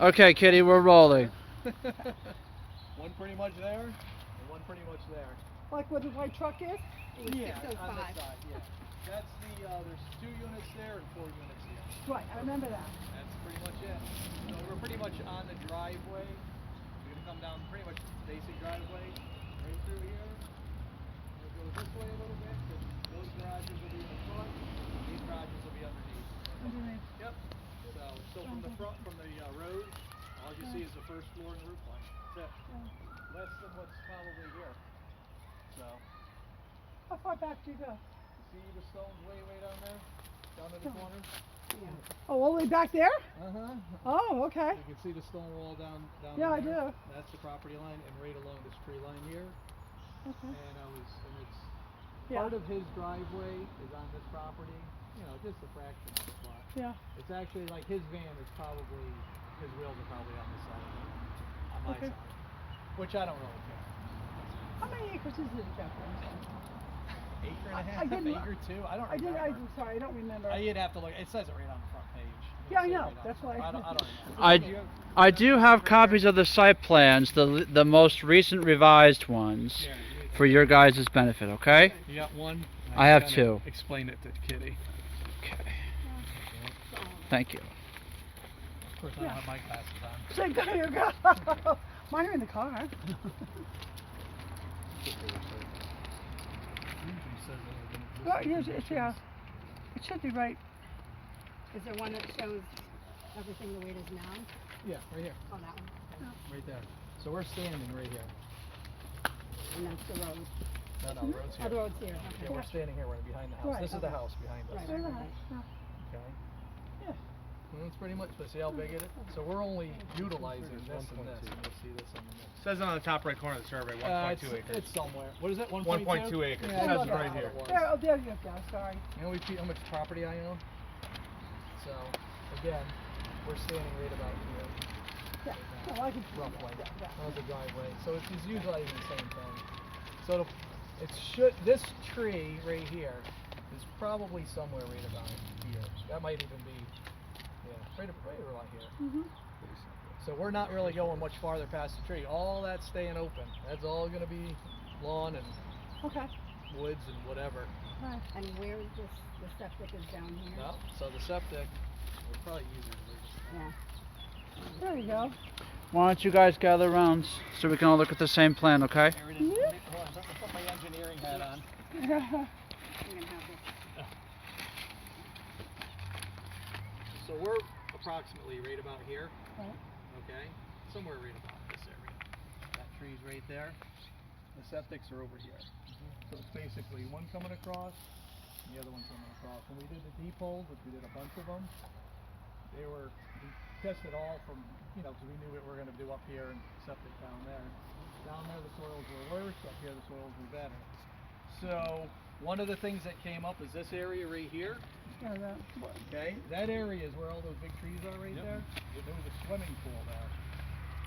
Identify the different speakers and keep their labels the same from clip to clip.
Speaker 1: Okay, Kitty, we're rolling.
Speaker 2: one pretty much there, and one pretty much there.
Speaker 3: Like where the white truck is? oh It was
Speaker 2: Yeah, on this
Speaker 3: 605.
Speaker 2: side, yeah. That's the, uh, there's two units there and four units here.
Speaker 3: Right, I remember that.
Speaker 2: That's pretty much it. So we're pretty much on the driveway. We're gonna come down pretty much basic driveway, right through here. We'll go this way a little bit, 'cause those garages will be in the front, these garages will be underneath. Yep, so, so from the front, from the, uh, road, all you see is the first floor and roof line, that's it. Less than what's probably here, so.
Speaker 3: How far back do you go?
Speaker 2: See the stones way, way down there? Down in the corner?
Speaker 3: Oh, all the way back there?
Speaker 2: Uh-huh.
Speaker 3: Oh, okay.
Speaker 2: You can see the stone wall down, down in
Speaker 3: Yeah, I
Speaker 2: there.
Speaker 3: do.
Speaker 2: That's the property line and right along this tree line here.
Speaker 3: Okay.
Speaker 2: And I was, and it's,
Speaker 3: Yeah.
Speaker 2: part of his driveway is on this property, you know, just a fraction of the lot.
Speaker 3: Yeah.
Speaker 2: It's actually like his van is probably, his wheels are probably on this side of it, on my
Speaker 3: Okay.
Speaker 2: side. Which I don't really care.
Speaker 3: How many acres is it, Jeffrey?
Speaker 2: Acre
Speaker 3: I-
Speaker 2: and a
Speaker 3: I
Speaker 2: half,
Speaker 3: didn't-
Speaker 2: acre two, I don't
Speaker 3: I did,
Speaker 2: remember.
Speaker 3: I'm sorry, I don't remember.
Speaker 2: Uh, You'd have to look. It says it right on the front page. It
Speaker 3: Yeah, I
Speaker 2: says
Speaker 3: know,
Speaker 2: right on the
Speaker 3: that's
Speaker 2: front.
Speaker 3: why.
Speaker 2: I don't, I don't know.
Speaker 1: I,
Speaker 2: Do you have-
Speaker 1: I do have copies of the site plans, the, the most recent revised ones,
Speaker 2: Yeah, you-
Speaker 1: for your guys' benefit, okay?
Speaker 2: You got one.
Speaker 1: I have
Speaker 2: kinda
Speaker 1: two.
Speaker 2: Explained it to Kitty.
Speaker 1: Okay. Thank you.
Speaker 2: Of course,
Speaker 3: Yeah.
Speaker 2: I don't have my glasses on.
Speaker 3: So there you go. Mine are in the car.
Speaker 2: Usually says that it didn't exist
Speaker 3: Well,
Speaker 2: in
Speaker 3: yes, it's, yeah.
Speaker 2: conditions.
Speaker 3: It should be right.
Speaker 4: Is there one that shows everything the way it is now?
Speaker 2: Yeah, right here,
Speaker 4: Oh, that one.
Speaker 2: right there. So we're standing right here.
Speaker 4: And that's the road.
Speaker 2: No, no,
Speaker 3: Mm-hmm.
Speaker 2: road's
Speaker 4: Oh, the
Speaker 2: here.
Speaker 4: road's here.
Speaker 2: Yeah,
Speaker 4: Okay.
Speaker 2: we're standing here, right behind the house.
Speaker 3: Right,
Speaker 2: This is the
Speaker 4: okay.
Speaker 2: house behind us.
Speaker 4: Right.
Speaker 3: Look at that. Yeah.
Speaker 2: Okay.
Speaker 3: Yeah.
Speaker 2: And That's pretty much, but see how big it is? So we're only utilizing this and this, and you'll see this on the next.
Speaker 5: Says it on the top right corner of the survey,
Speaker 2: Uh,
Speaker 5: 1.2
Speaker 2: it's-
Speaker 5: acres.
Speaker 2: It's somewhere. What is it, one point two?
Speaker 5: 1.2
Speaker 2: Yeah,
Speaker 3: It
Speaker 5: acres.
Speaker 2: that's
Speaker 3: says it
Speaker 2: about
Speaker 3: right
Speaker 2: what it
Speaker 5: here.
Speaker 2: was.
Speaker 3: There, oh, there you go, sorry.
Speaker 2: You know, we see how much property I own. So, again, we're standing right about here,
Speaker 3: Yeah, no, I can.
Speaker 2: roughly.
Speaker 3: Yeah, yeah.
Speaker 2: That was a driveway. So it's just utilizing the same thing. So it'll- it should, this tree right here is probably somewhere right about here. That might even be, yeah, right, ab- right around here.
Speaker 3: Mhm.
Speaker 2: So we're not really going much farther past the tree. All that's staying open. That's all gonna be lawn and
Speaker 3: Okay,
Speaker 2: woods and whatever.
Speaker 3: alright.
Speaker 4: And where is this, the septic is down here?
Speaker 2: No, so the septic, we're probably using it.
Speaker 4: Yeah.
Speaker 3: There you go.
Speaker 1: Why don't you guys gather around so we can all look at the same plan, okay?
Speaker 2: Aaron, and let me- hold on, let me put my engineering hat on.
Speaker 4: We're gonna have this.
Speaker 2: So we're approximately right about here.
Speaker 3: Right.
Speaker 2: Okay, somewhere right about this area. That tree's right there. The septics are over here. So it's basically one coming across, and the other one coming across. When we did the deep holes, which we did a bunch of them, they were, we tested all from, you know, because we knew what we were gonna do up here and septic down there. Down there, the soils were worse, up here, the soils were better. So, one of the things that came up is this area right here.
Speaker 3: Yeah, that- what-
Speaker 2: Okay, that area is where all those big trees are right there. There was a swimming pool there.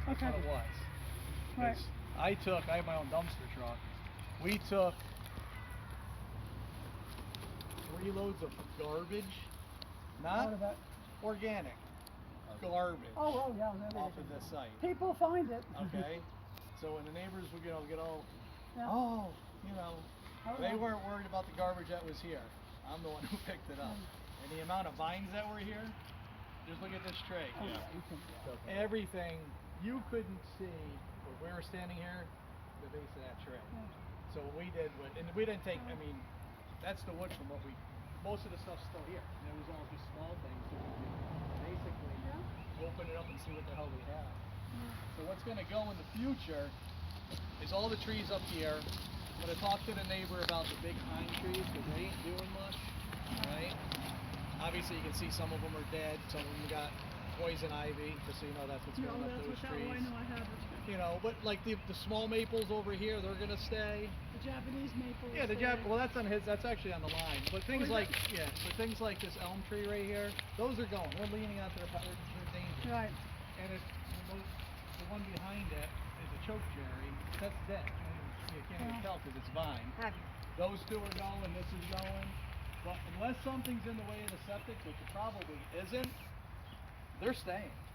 Speaker 2: That's
Speaker 3: Okay,
Speaker 2: what it was.
Speaker 3: Right.
Speaker 2: 'Cause I took, I have my own dumpster truck. We took three loads of garbage,
Speaker 3: out
Speaker 2: not
Speaker 3: of it.
Speaker 2: organic, garbage
Speaker 3: Oh, oh, yeah, there
Speaker 2: off
Speaker 3: it
Speaker 2: of
Speaker 3: is.
Speaker 2: this site.
Speaker 3: People find it.
Speaker 2: Okay, so when the neighbors would you know get all,
Speaker 3: Yeah.
Speaker 2: oh, you know,
Speaker 3: Oh, yeah.
Speaker 2: they weren't worried about the garbage that was here. I'm the one who picked it up. And the amount of vines that were here, just look at this tray.
Speaker 3: Oh, yeah, you can-
Speaker 2: Everything, you couldn't see where we were standing here, the base of that tray.
Speaker 3: Yeah.
Speaker 2: So what we did, was, and we didn't take, I mean, that's the wood from what we, most of the stuff's still here. And it was all just small things. that we did. Basically, open it up and see what the hell we have. So what's gonna go in the future is all the trees up here. I'm gonna talk to the neighbor about the big pine trees, because they ain't doing much, right? Obviously, you can see some of them are dead, some of them got poison ivy, just so you know that's what's going up those trees.
Speaker 3: I have it.
Speaker 2: You know, but like the, the small maples over here, they're gonna stay.
Speaker 3: The Japanese maple.
Speaker 2: Yeah, the Jap, well, that's on his, that's actually on the line, but things
Speaker 3: is it?
Speaker 2: like, yeah, but things like this elm tree right here, those are going, we're leaning out to the, they're they're dangerous.
Speaker 3: Right.
Speaker 2: And it's, the mo- the one behind it is a choke cherry, that's dead, I mean, you can't even
Speaker 3: Yeah.
Speaker 2: tell because it's vine.
Speaker 4: Have you?
Speaker 2: Those two are going, this is going, but unless something's in the way of the septic, which it probably isn't, they're staying.